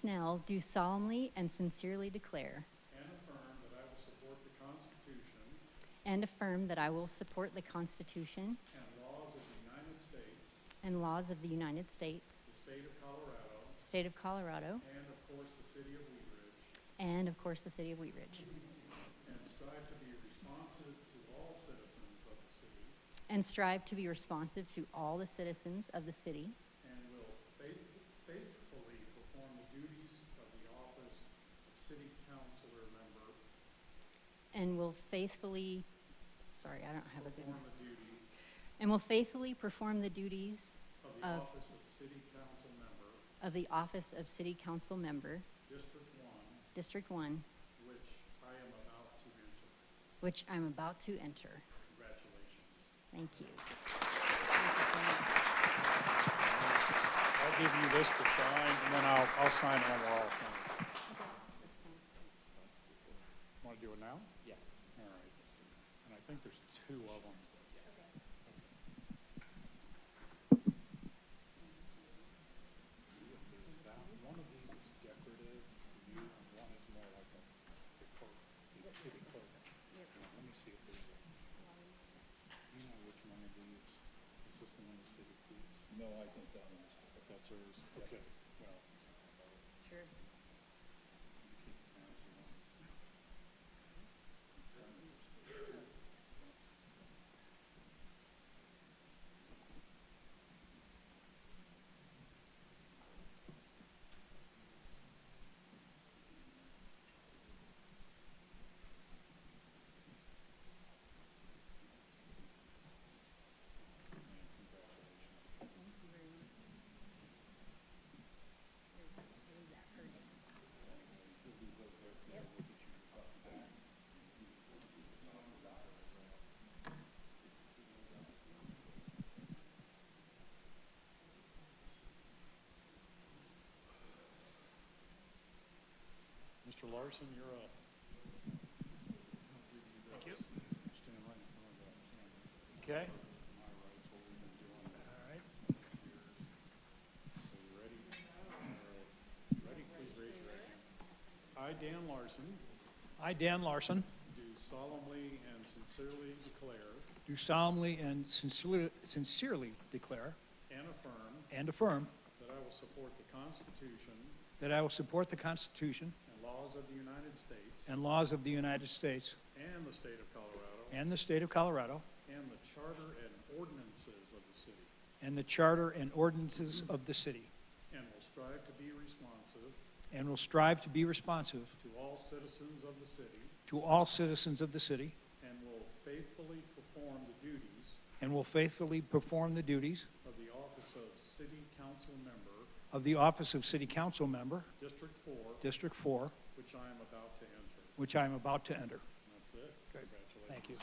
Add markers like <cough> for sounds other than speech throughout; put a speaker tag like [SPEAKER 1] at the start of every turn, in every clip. [SPEAKER 1] Snell do solemnly and sincerely declare
[SPEAKER 2] and affirm that I will support the Constitution
[SPEAKER 1] and affirm that I will support the Constitution
[SPEAKER 2] and laws of the United States,
[SPEAKER 1] and laws of the United States,
[SPEAKER 2] the state of Colorado,
[SPEAKER 1] State of Colorado,
[SPEAKER 2] and of course, the city of Wheat Ridge,
[SPEAKER 1] and of course the City of Wheat Ridge,
[SPEAKER 2] and strive to be responsive to all citizens of the city,
[SPEAKER 1] and strive to be responsive to all the citizens of the city,
[SPEAKER 2] and will faith- faithfully perform the duties of the office of city councilor member,
[SPEAKER 1] and will faithfully, sorry, I don't have a good
[SPEAKER 2] perform the duties
[SPEAKER 1] and will faithfully perform the duties
[SPEAKER 2] of the
[SPEAKER 1] Of-
[SPEAKER 2] office of city council member,
[SPEAKER 1] of the office of City Council Member,
[SPEAKER 2] District One,
[SPEAKER 1] District 1,
[SPEAKER 2] which I am about to enter.
[SPEAKER 1] which I'm about to enter.
[SPEAKER 2] Congratulations.
[SPEAKER 1] Thank you. Thank you so much.
[SPEAKER 2] I'll give you this to sign, and then I'll, I'll sign it on the wall. Want to do it now? Yeah. All right. And I think there's two of them. One of these is decorative, for you, and one is more like a, the clerk, the city clerk. Now, Let me see if there's a, you know which one of these, is this the one the city keeps? No, I think that one is. If that's hers, okay, well. you keep it now if you want. Mr. Larson, you're up. Thank you. Stand right in front of that camera.
[SPEAKER 3] Okay,
[SPEAKER 2] My right's what we've been doing
[SPEAKER 3] all
[SPEAKER 2] that.
[SPEAKER 3] right.
[SPEAKER 2] So you ready? All right. Ready, please raise your right hand. I, Dan Larson,
[SPEAKER 3] I, Dan Larson,
[SPEAKER 2] do solemnly and sincerely declare
[SPEAKER 3] do solemnly and sincerely sincerely declare
[SPEAKER 2] and affirm
[SPEAKER 3] and affirm
[SPEAKER 2] that I will support the Constitution
[SPEAKER 3] that I will support the Constitution
[SPEAKER 2] and laws of the United States
[SPEAKER 3] and laws of the United States
[SPEAKER 2] and the state of Colorado
[SPEAKER 3] and the state of Colorado
[SPEAKER 2] and the charter and ordinances of the city,
[SPEAKER 3] and the charter and ordinances of the city,
[SPEAKER 2] and will strive to be responsive
[SPEAKER 3] and will strive to be responsive
[SPEAKER 2] to all citizens of the city,
[SPEAKER 3] to all citizens of the city,
[SPEAKER 2] and will faithfully perform the duties
[SPEAKER 3] and will faithfully perform the duties
[SPEAKER 2] of the office of city council member,
[SPEAKER 3] of the office of city council member,
[SPEAKER 2] District Four,
[SPEAKER 3] District 4,
[SPEAKER 2] which I am about to enter.
[SPEAKER 3] which I am about to enter.
[SPEAKER 2] And That's it. Congratulations.
[SPEAKER 3] Thank you.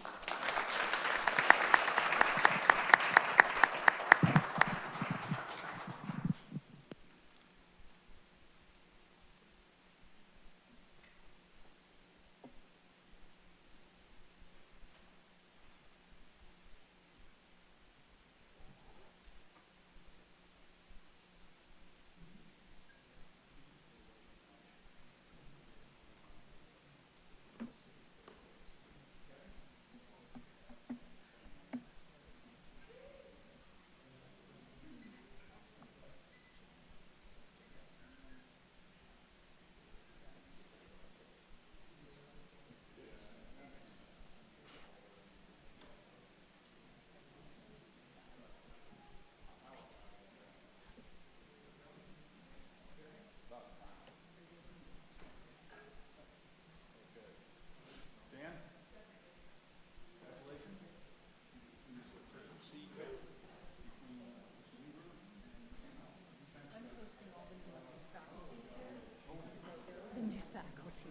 [SPEAKER 1] the new faculty.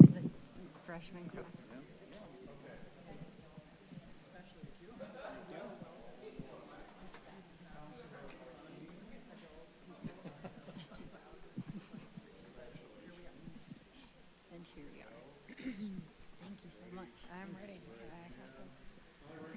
[SPEAKER 1] The Freshman class. <clears throat>